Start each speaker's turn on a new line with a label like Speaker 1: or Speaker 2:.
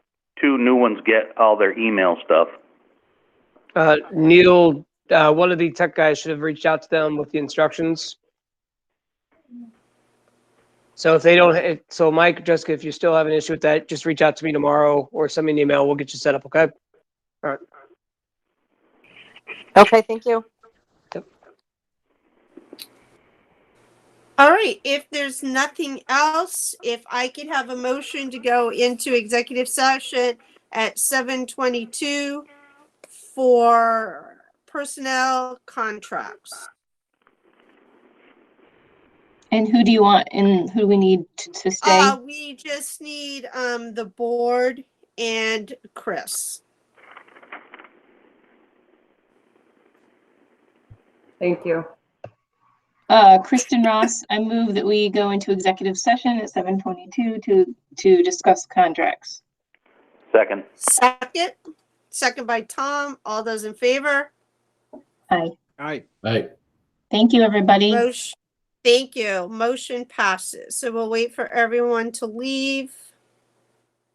Speaker 1: two new ones get all their email stuff.
Speaker 2: Uh, Neil, uh, one of the tech guys should have reached out to them with the instructions. So if they don't, if- so Mike, Jessica, if you still have an issue with that, just reach out to me tomorrow or send me an email. We'll get you set up, okay?
Speaker 3: Okay, thank you.
Speaker 4: All right, if there's nothing else, if I could have a motion to go into executive session at seven twenty-two for personnel contracts.
Speaker 5: And who do you want and who do we need to, to stay?
Speaker 4: Uh, we just need, um, the board and Chris.
Speaker 6: Thank you.
Speaker 5: Uh, Kristen Ross, I move that we go into executive session at seven twenty-two to, to discuss contracts.
Speaker 1: Second.
Speaker 4: Second, second by Tom, all those in favor?
Speaker 5: Aye.
Speaker 7: Aye.
Speaker 8: Aye.
Speaker 5: Thank you, everybody.
Speaker 4: Motion, thank you, motion passes. So we'll wait for everyone to leave.